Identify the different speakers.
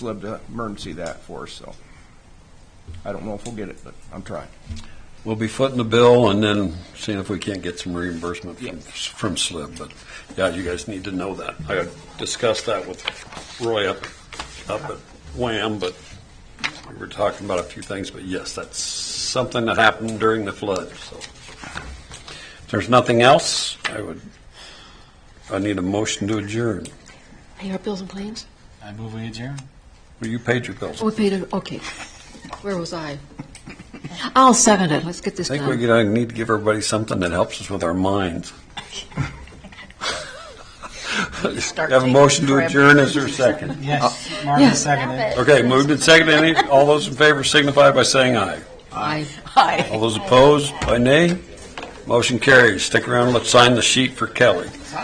Speaker 1: Lib to emergency that for us, so. I don't know if we'll get it, but I'm trying.
Speaker 2: We'll be footing the bill and then seeing if we can't get some reimbursement
Speaker 1: Yeah.
Speaker 2: from, from SLIB. But, yeah, you guys need to know that. I discussed that with Roy up, up at Wham, but we were talking about a few things, but yes, that's something that happened during the flood, so. If there's nothing else, I would, I need a motion to adjourn.
Speaker 3: Pay our bills and claims?
Speaker 4: I move we adjourn.
Speaker 2: Well, you paid your bills.
Speaker 3: Oh, we paid it, okay. Where was I? I'll second it, let's get this
Speaker 2: I think we gotta-
Speaker 3: done.
Speaker 2: need to give everybody something that helps us with our minds. Have a motion to adjourn, is there a second?
Speaker 4: Yes, Marty
Speaker 3: yes.
Speaker 4: seconded.
Speaker 2: Okay, moved and seconded, Any- all those in favor signify by saying aye.
Speaker 3: Aye.
Speaker 2: All those opposed, by nay. Motion carries, stick around, let's sign the sheet for Kelly.